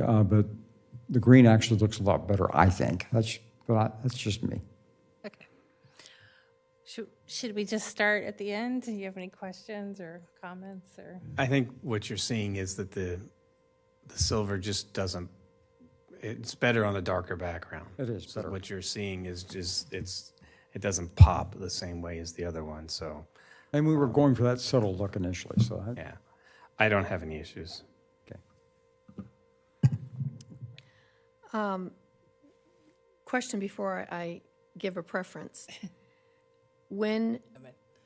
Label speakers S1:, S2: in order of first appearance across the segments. S1: uh, but the green actually looks a lot better, I think. That's, but I, that's just me.
S2: Okay. Should, should we just start at the end? Do you have any questions or comments or?
S3: I think what you're seeing is that the, the silver just doesn't, it's better on a darker background.
S1: It is
S3: So
S1: better.
S3: What you're seeing is just, it's, it doesn't pop the same way as the other one, so,
S1: And we were going for that subtle look initially, so I-
S3: yeah. I don't have any issues.
S1: okay.
S4: Question before I give a preference. When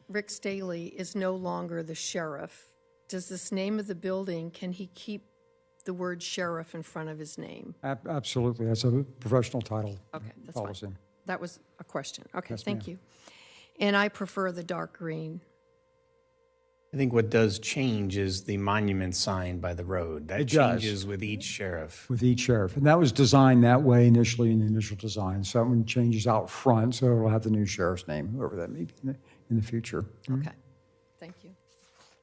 S4: Rick Staley is no longer the sheriff, does this name of the building, can he keep the word sheriff in front of his name?
S1: Ab- Absolutely, that's a professional title
S4: Okay, that's fine.
S1: policy.
S4: That was a question. Okay, thank you. And I prefer the dark green.
S3: I think what does change is the monument sign by the road. That
S1: does.
S3: changes with each sheriff.
S1: with each sheriff. And that was designed that way initially in the initial design. So that one changes out front, so it'll have the new sheriff's name, whoever that may be in the, in the future.
S4: Okay, thank you.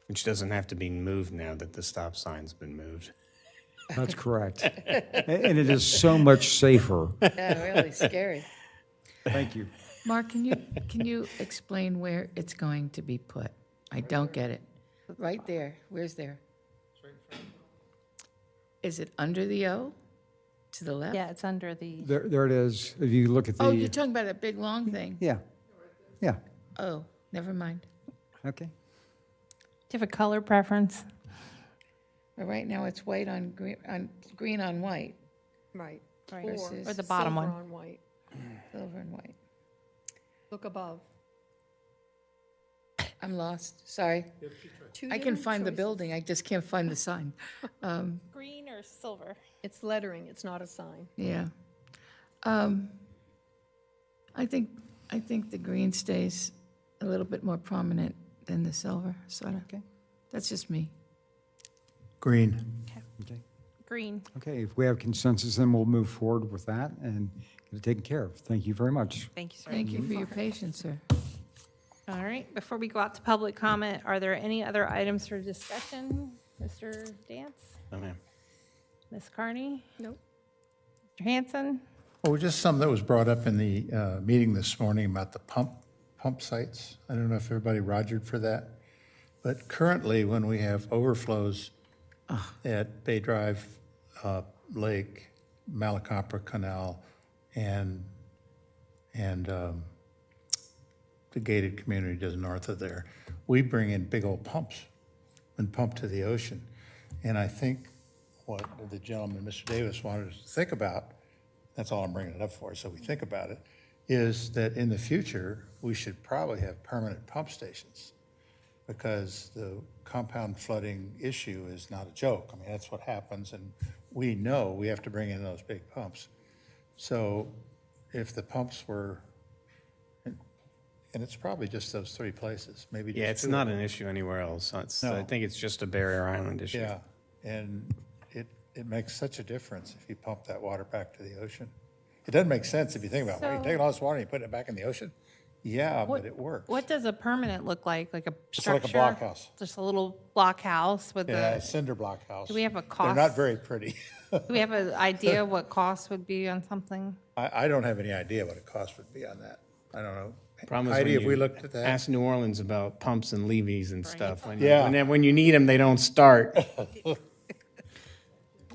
S3: Which doesn't have to be moved now that the stop sign's been moved.
S1: That's correct. A- and it is so much safer.
S4: Yeah, really scary.
S1: Thank you.
S5: Mark, can you, can you explain where it's going to be put? I don't get it. Right there, where's there? Is it under the O, to the left?
S2: Yeah, it's under the,
S1: There, there it is. If you look at the
S5: Oh, you're talking about that big, long thing?
S1: yeah, yeah.
S5: Oh, never mind.
S1: Okay.
S2: do you have a color preference?
S5: But right now, it's white on green, on, green on white,
S4: Right.
S2: Right.
S5: Versus-
S2: Or the bottom
S4: silver
S2: one?
S4: on white.
S5: silver and white.
S4: Look above.
S5: I'm lost, sorry.
S4: Two
S5: I can
S4: different
S5: find the
S4: choices.
S5: building, I just can't find the sign.
S2: Green or silver?
S4: It's lettering, it's not a sign.
S5: Yeah. Um, I think, I think the green stays a little bit more prominent than the silver, sort of.
S1: Okay.
S5: That's just me.
S3: Green.
S1: Okay.
S2: Green.
S1: Okay. If we have consensus, then we'll move forward with that and get it taken care of. Thank you very much.
S2: Thank you, sir.
S5: Thank you for your patience, sir.
S2: All right, before we go out to public comment, are there any other items for discussion? Mr. Dance,
S3: Oh, ma'am.
S2: Ms. Carney,
S4: Nope.
S2: Mr. Hanson?
S6: Well, just something that was brought up in the uh, meeting this morning about the pump, pump sites. I don't know if everybody rogered for that, but currently, when we have overflows at Bay Drive, uh, Lake, Malacopter Canal, and, and um, the gated community just north of there, we bring in big old pumps and pump to the ocean. And I think what the gentleman, Mr. Davis, wanted us to think about, that's all I'm bringing it up for, so we think about it, is that in the future, we should probably have permanent pump stations because the compound flooding issue is not a joke. I mean, that's what happens, and we know we have to bring in those big pumps. So if the pumps were, and and it's probably just those three places, maybe just
S3: Yeah, it's
S6: two.
S3: not an issue anywhere else. It's, I
S6: No.
S3: think it's just a barrier island issue.
S6: Yeah, and it, it makes such a difference if you pump that water back to the ocean. It doesn't make sense if you think about it. Well,
S2: So-
S6: You're taking all this water and you're putting it back in the ocean? Yeah, but it works.
S2: What does a permanent look like? Like a
S6: It's like
S2: structure?
S6: a blockhouse.
S2: Just a little blockhouse with
S6: Yeah,
S2: a,
S6: cinder block house.
S2: do we have a
S6: They're
S2: cost?
S6: not very pretty.
S2: do we have an idea what costs would be on something?
S6: I, I don't have any idea what a cost would be on that. I don't know.
S3: Problem is
S6: Heidi,
S3: when
S6: have we
S3: you
S6: looked at that?
S3: Ask New Orleans about pumps and levees and stuff. When you-
S6: Yeah.
S3: When, when you need them, they don't start.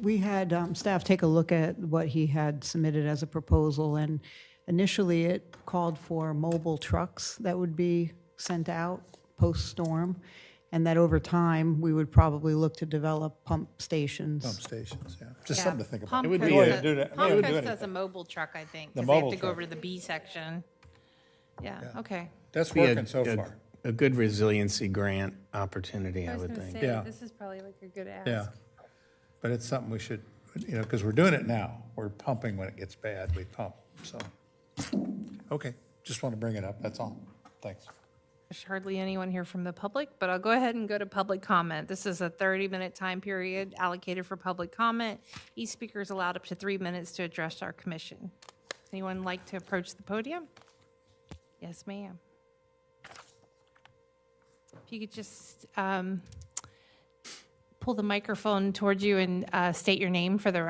S7: We had um, staff take a look at what he had submitted as a proposal, and initially it called for mobile trucks that would be sent out post-storm, and that over time, we would probably look to develop pump
S6: Pump
S7: stations.
S6: stations, yeah. Just something to think about.
S2: Palm
S3: It would
S2: Coast
S3: be a-
S2: says-
S6: do that- I mean,
S2: Palm
S6: it would do
S2: Coast
S6: anything.
S2: has a mobile truck, I think,
S6: The
S2: because they have
S6: mobile
S2: to go
S6: truck.
S2: over to the B section. Yeah, okay.
S6: That's
S3: Be a-
S6: working so
S3: a-
S6: far.
S3: A good resiliency grant opportunity, I would think.
S6: Yeah.
S2: this is probably like a good ask.
S6: Yeah. But it's something we should, you know, because we're doing it now. We're pumping when it gets bad, we pump, so. Okay, just want to bring it up, that's all. Thanks.
S2: There's hardly anyone here from the public, but I'll go ahead and go to public comment. This is a 30-minute time period allocated for public comment. Each speaker is allowed up to three minutes to address our commission. Anyone like to approach the podium? Yes, ma'am. If you could just um, pull the microphone towards you and uh, state your name for the